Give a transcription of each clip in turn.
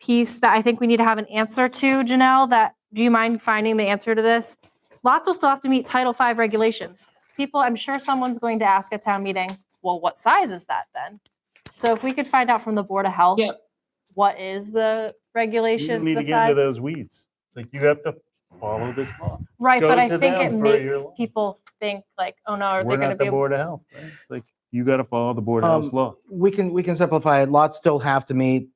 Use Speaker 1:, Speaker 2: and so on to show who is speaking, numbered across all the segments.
Speaker 1: piece that I think we need to have an answer to, Janelle, that, do you mind finding the answer to this? Lots will still have to meet Title V regulations. People, I'm sure someone's going to ask at town meeting, well, what size is that then? So if we could find out from the Board of Health,
Speaker 2: Yep.
Speaker 1: what is the
Speaker 3: You
Speaker 1: regulation,
Speaker 3: need to
Speaker 1: the
Speaker 3: get into
Speaker 1: size?
Speaker 3: those weeds. It's like you have to follow this law.
Speaker 1: Right,
Speaker 3: go
Speaker 1: but I
Speaker 3: to
Speaker 1: think it
Speaker 3: them for your
Speaker 1: makes
Speaker 3: law.
Speaker 1: people think like, oh no, are they
Speaker 3: We're
Speaker 1: gonna
Speaker 3: not
Speaker 1: be?
Speaker 3: the
Speaker 1: able-
Speaker 3: Board of Health. right? It's like, you got to follow the Board of
Speaker 2: Um,
Speaker 3: Health law.
Speaker 2: We can, we can simplify it. Lots still have to meet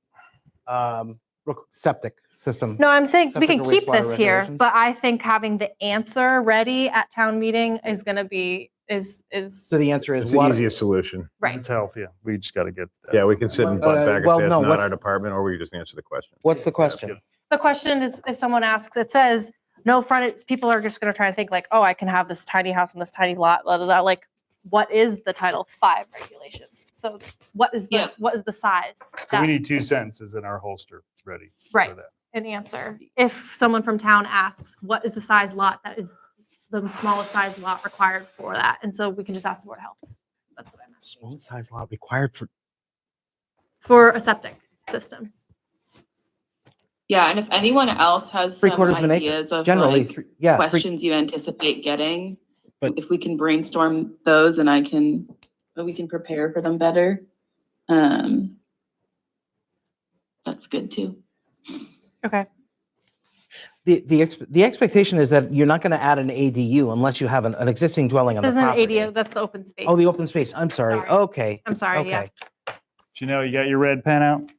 Speaker 2: um, re- septic system.
Speaker 1: No, I'm saying we can
Speaker 2: Separate
Speaker 1: keep
Speaker 2: wastewater
Speaker 1: this here,
Speaker 2: regulations.
Speaker 1: but I think having the answer ready at town meeting is gonna be, is, is.
Speaker 2: So the answer is
Speaker 4: It's the
Speaker 2: water.
Speaker 4: easiest solution.
Speaker 1: Right,
Speaker 3: It's health, yeah. We just got to get. that
Speaker 4: Yeah, we
Speaker 3: from
Speaker 4: can sit and
Speaker 3: them.
Speaker 2: Well,
Speaker 4: butt
Speaker 2: uh,
Speaker 4: back and
Speaker 2: well,
Speaker 4: say it's
Speaker 2: no,
Speaker 4: not
Speaker 2: what's-
Speaker 4: our department, or we can just answer the question.
Speaker 2: What's the question?
Speaker 1: the question is, if someone asks, it says, no front, people are just gonna try to think like, oh, I can have this tiny house and this tiny lot, blah, blah, blah, like, what is the Title Five regulations? So what is
Speaker 2: Yeah.
Speaker 1: this, what is the size?
Speaker 3: So we
Speaker 1: That-
Speaker 3: need two sentences in our holster ready
Speaker 1: Right,
Speaker 3: for that.
Speaker 1: an answer. If someone from town asks, what is the size lot that is the smallest size lot required for that? And so we can just ask the Board of Health. That's what I meant.
Speaker 2: Small size lot required for.
Speaker 1: for a septic system.
Speaker 5: Yeah, and if anyone else has
Speaker 2: Three
Speaker 5: some
Speaker 2: quarters of an acre,
Speaker 5: ideas of
Speaker 2: Generally,
Speaker 5: like
Speaker 2: three- yeah, three-
Speaker 5: questions you anticipate getting,
Speaker 2: But-
Speaker 5: if we can brainstorm those and I can, we can prepare for them better. Um, that's good too.
Speaker 1: Okay.
Speaker 2: the, the, ex- the expectation is that you're not going to add an ADU unless you have an, an existing dwelling on
Speaker 1: This
Speaker 2: the
Speaker 1: is an
Speaker 2: property.
Speaker 1: ADO, that's the open space.
Speaker 2: Oh, the open space. I'm sorry.
Speaker 1: Sorry.
Speaker 2: Okay.
Speaker 1: I'm sorry, yeah.
Speaker 2: Okay.
Speaker 3: Janelle, you got your red pen out?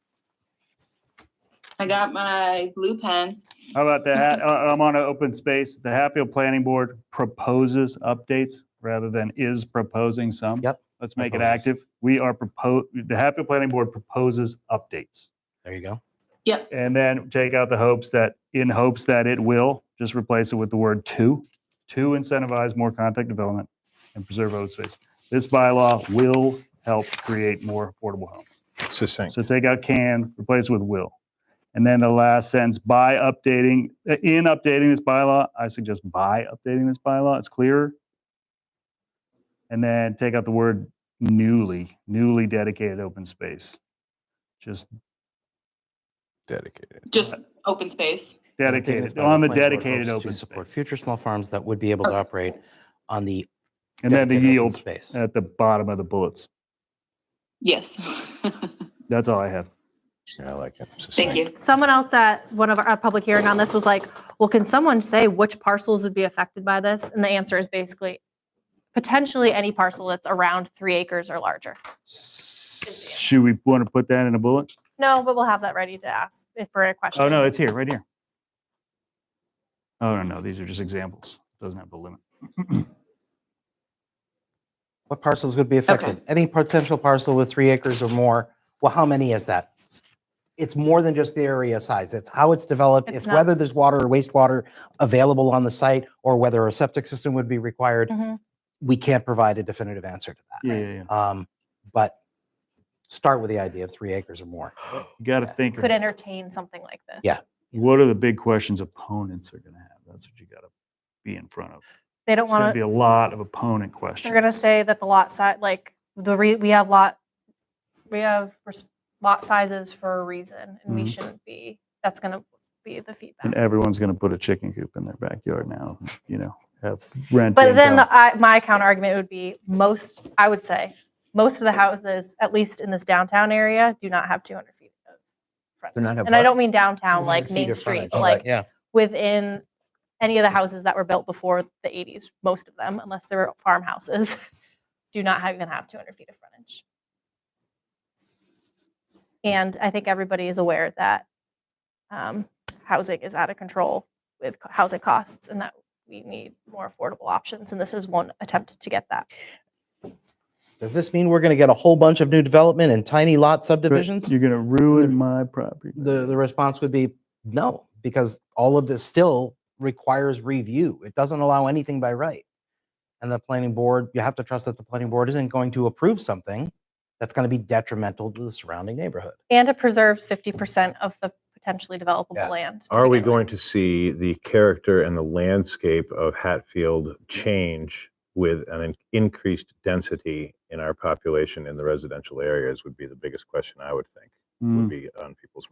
Speaker 5: I got my blue pen.
Speaker 3: How about that? I'm on an open space. The Hatfield Planning Board proposes updates rather than is proposing some.
Speaker 2: Yep.
Speaker 3: Let's make it
Speaker 2: Proposes.
Speaker 3: active. We are propos, the Hatfield Planning Board proposes updates.
Speaker 2: There you go.
Speaker 3: And then take out the hopes that, in hopes that it will, just replace it with the word to, to incentivize more contact development and preserve open space. This bylaw will help create more affordable homes.
Speaker 4: Succinct.
Speaker 3: So take out can, replace with will. And then the last sentence, by updating, in updating this bylaw, I suggest by updating this bylaw, it's clearer. And then take out the word newly, newly dedicated open space. Just
Speaker 4: Dedicated.
Speaker 5: Just open space.
Speaker 3: dedicated, on the dedicated open
Speaker 2: Support
Speaker 3: space.
Speaker 2: future small farms that would be able to
Speaker 5: Okay.
Speaker 2: operate on the.
Speaker 3: And then the
Speaker 2: dedicated open
Speaker 3: yield
Speaker 2: Space.
Speaker 3: at the bottom of the bullets.
Speaker 5: Yes.
Speaker 3: That's all I have.
Speaker 4: Yeah, I like it.
Speaker 5: Thank
Speaker 4: Succinct.
Speaker 5: you.
Speaker 1: Someone else at one of our, a public hearing on this was like, well, can someone say which parcels would be affected by this? And the answer is basically potentially any parcel that's around three acres or larger.
Speaker 3: Should we want to put that in a bullet?
Speaker 1: No, but we'll have that ready to ask if for a question.
Speaker 3: Oh, no, it's here, right here. Oh, no, no, these are just examples. Doesn't have a limit.
Speaker 2: What parcels would be affected? Any potential parcel with three acres or more, well, how many is that? It's more than just the area size. It's how it's developed.
Speaker 1: It's
Speaker 2: It's
Speaker 1: not-
Speaker 2: whether there's water or wastewater available on the site or whether a septic system would be required.
Speaker 1: Mhm.
Speaker 2: We can't provide a definitive answer to that.
Speaker 3: Yeah, yeah, yeah.
Speaker 2: Um, But start with the idea of three acres or more.
Speaker 3: You got to think, of
Speaker 1: Could entertain something like this.
Speaker 2: Yeah.
Speaker 3: what are the big questions opponents are going to have? That's what you got to be in front of.
Speaker 1: They don't
Speaker 3: There's going to
Speaker 1: want
Speaker 3: be
Speaker 1: to,
Speaker 3: a lot of opponent
Speaker 1: they're
Speaker 3: questions.
Speaker 1: going to say that the lot size, like the, re we have lot, we have res- lot sizes for a reason and we
Speaker 3: Mhm.
Speaker 1: shouldn't be, that's going to be the
Speaker 3: And
Speaker 1: feedback.
Speaker 3: everyone's going to put a chicken coop in their backyard now, you know, have rent.
Speaker 1: But then
Speaker 3: income.
Speaker 1: I, my counter argument would be most, I would say, most of the houses, at least in this downtown area, do not have 200 feet. of
Speaker 2: They're not.
Speaker 1: And I don't mean downtown,
Speaker 2: 200
Speaker 1: like
Speaker 2: feet
Speaker 1: Main
Speaker 2: of Oh, frontage.
Speaker 1: Street, but like
Speaker 2: Yeah.
Speaker 1: within any of the houses that were built before the 80s, most of them, unless they were farmhouses, do not have- even have 200 feet of frontage. And I think everybody is aware that um, housing is out of control with co- housing costs and that we need more affordable options. And this is one attempt to get that.
Speaker 2: Does this mean we're going to get a whole bunch of new development and tiny lot subdivisions?
Speaker 3: You're going to ruin my property.
Speaker 2: The, the response would be no, because all of this still requires review. It doesn't allow anything by right. And the planning board, you have to trust that the planning board isn't going to approve something that's going to be detrimental to the surrounding neighborhood.
Speaker 1: And it preserves 50% of the potentially
Speaker 2: Yeah.
Speaker 1: developable land. to
Speaker 4: Are we
Speaker 1: begin with.
Speaker 4: going to see the character and the landscape of Hatfield change with an in- increased density in our population in the residential areas would be the biggest question I would think
Speaker 3: Mm.
Speaker 4: would be on people's